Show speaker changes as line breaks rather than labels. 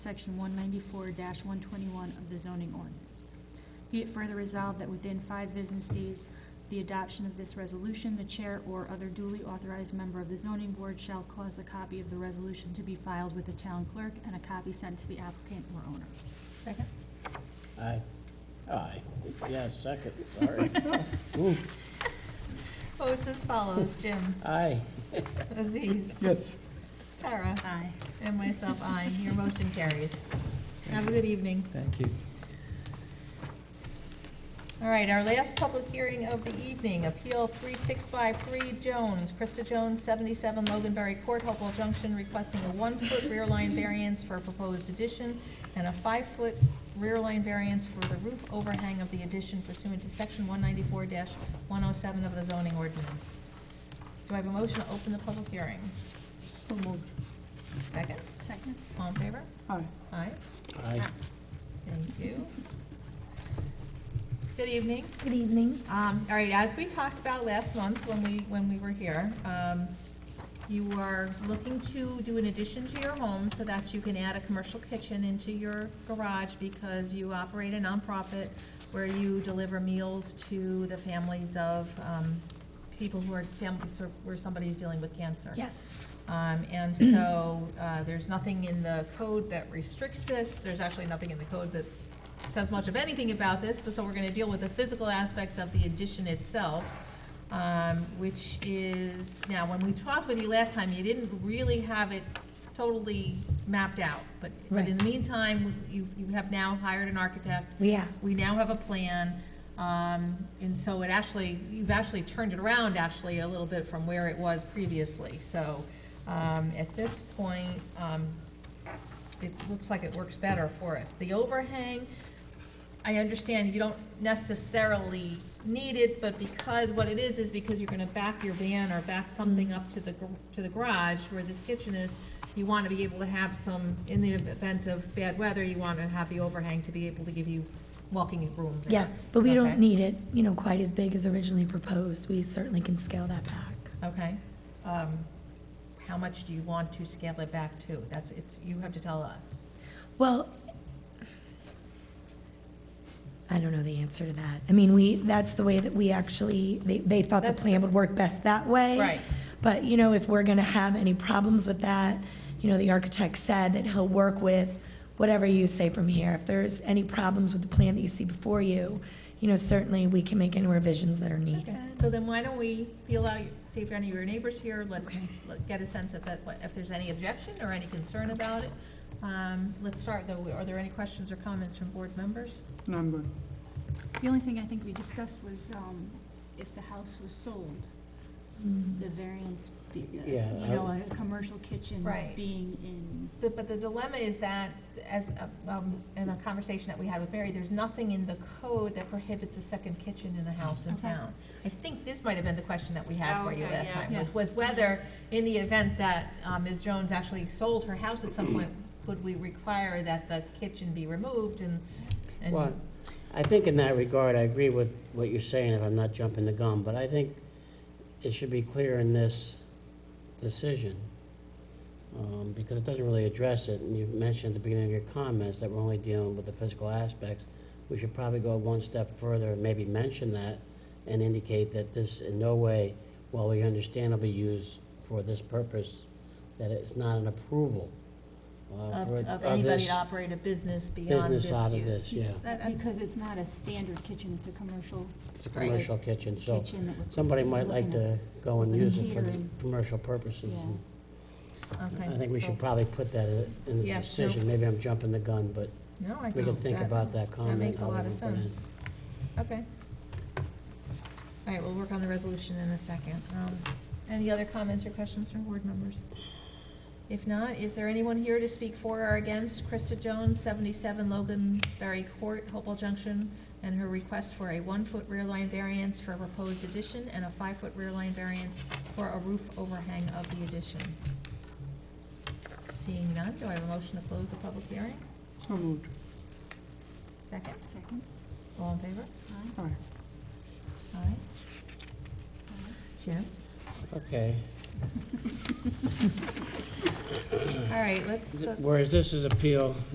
Section 194-121 of the zoning ordinance. Be it further resolved that within five business days, of the adoption of this resolution, the chair or other duly authorized member of the zoning board shall cause a copy of the resolution to be filed with the town clerk and a copy sent to the applicant or owner.
Second?
Aye. Aye. Yeah, second, sorry. Ooh,
Votes as follows, Jim,
Aye.
Aziz,
Yes.
Tara. Aye. And myself, aye. Your motion carries. Have a good evening.
Thank you.
All right, our last public hearing of the evening, Appeal 3653 Jones, Krista Jones, 77 Loganberry Court, Hopewell Junction, requesting a one-foot rear line variance for a proposed addition and a five-foot rear line variance for the roof overhang of the addition pursuant to Section 194-107 of the zoning ordinance. Do I have a motion to open the public hearing?
So moved.
Second?
Second?
All in favor?
Aye.
Aye.
Aye.
Thank you. Good evening.
Good evening.
Um, all right, as we talked about last month when we, when we were here, um, you are looking to do an addition to your home so that you can add a commercial kitchen into your garage because you operate a nonprofit where you deliver meals to the families of, um, people who are, families who- where somebody's dealing with cancer.
Yes.
Um, and so, uh, there's nothing in the code that restricts this, there's actually nothing in the code that says much of anything about this, but so we're gonna deal with the physical aspects of the addition itself, um, which is, now, when we talked with you last time, you didn't really have it totally mapped out, but, but in the meantime, you, you have now hired an architect,
We have.
we now have a plan, um, and so it actually, you've actually turned it around actually a little bit from where it was previously. So, um, at this point, um, it looks like it works better for us. The overhang, I understand you don't necessarily need it, but because, what it is, is because you're gonna back your van or back something up to the, gar- to the garage where this kitchen is, you wanna be able to have some, in the event of bad weather, you wanna have the overhang to be able to give you walking room. there.
Yes, but we don't
Okay.
need it, you know, quite as big as originally proposed. We certainly can scale that back.
Okay. Um, how much do you want to scale it back to? That's, it's, you have to tell us.
Well, I don't know the answer to that. I mean, we, that's the way that we actually, they, they thought the
That's-
plan would work best that way.
Right.
But, you know, if we're gonna have any problems with that, you know, the architect said that he'll work with whatever you say from here. If there's any problems with the plan that you see before you, you know, certainly we can make any revisions that are needed.
So then why don't we feel out, see if any of your neighbors here,
Okay.
let's let- get a sense of that, what- if there's any objection or any concern about it. Um, Let's start though, are there any questions or comments from board members?
No, I'm good.
The only thing I think we discussed was um, if the house was sold,
Mm-hmm.
the variance, be- uh, you
Yeah, I-
know, a commercial kitchen
Right.
being in
But, but the dilemma is that, as, uh, um, in a conversation that we had with Mary, there's nothing in the code that prohibits a second kitchen in a house in
Okay.
town. I think this might have been the question that we had for you
Okay,
last
yeah.
time, was,
Yeah.
was whether, in the event that um, Ms. Jones actually sold her house at some point, could we require that the kitchen be removed and, and
Well, I think in that regard, I agree with what you're saying, if I'm not jumping the gun, but I think it should be clear in this decision, um, because it doesn't really address it, and you mentioned at the beginning of your comments that we're only dealing with the physical aspects. We should probably go one step further and maybe mention that and indicate that this in no way, while we understandably use for this purpose, that it's not an approval uh,
of,
for-
of
this
anybody to operate a business beyond this use?
Business out of this, yeah.
That- that's-
Because it's not a standard kitchen, it's a commercial
It's a
Right.
commercial kitchen, so
kitchen that we're.
somebody might like
looking at.
to go and
Looking at
use it for the
catering.
commercial purposes.
Yeah.
and
okay,
I think we
so-
should probably put that in- in the
Yeah, no.
decision. Maybe I'm jumping the gun, but
No, I
we can
think
think
that-
about that comment.
That makes a
how we
lot of
can put it in.
sense. Okay. All right, we'll work on the resolution in a second. Um, Any other comments or questions from board members? If not, is there anyone here to speak for or against Krista Jones, 77 Loganberry Court, Hopewell Junction, and her request for a one-foot rear line variance for a proposed addition and a five-foot rear line variance for a roof overhang of the addition? Seeing none, do I have a motion to close the public hearing?
So moved.
Second?
Second,
All in favor?
aye,
Aye.
All right.
aye.
Jim?
Okay.
All right, let's. let's-
Whereas this is appeal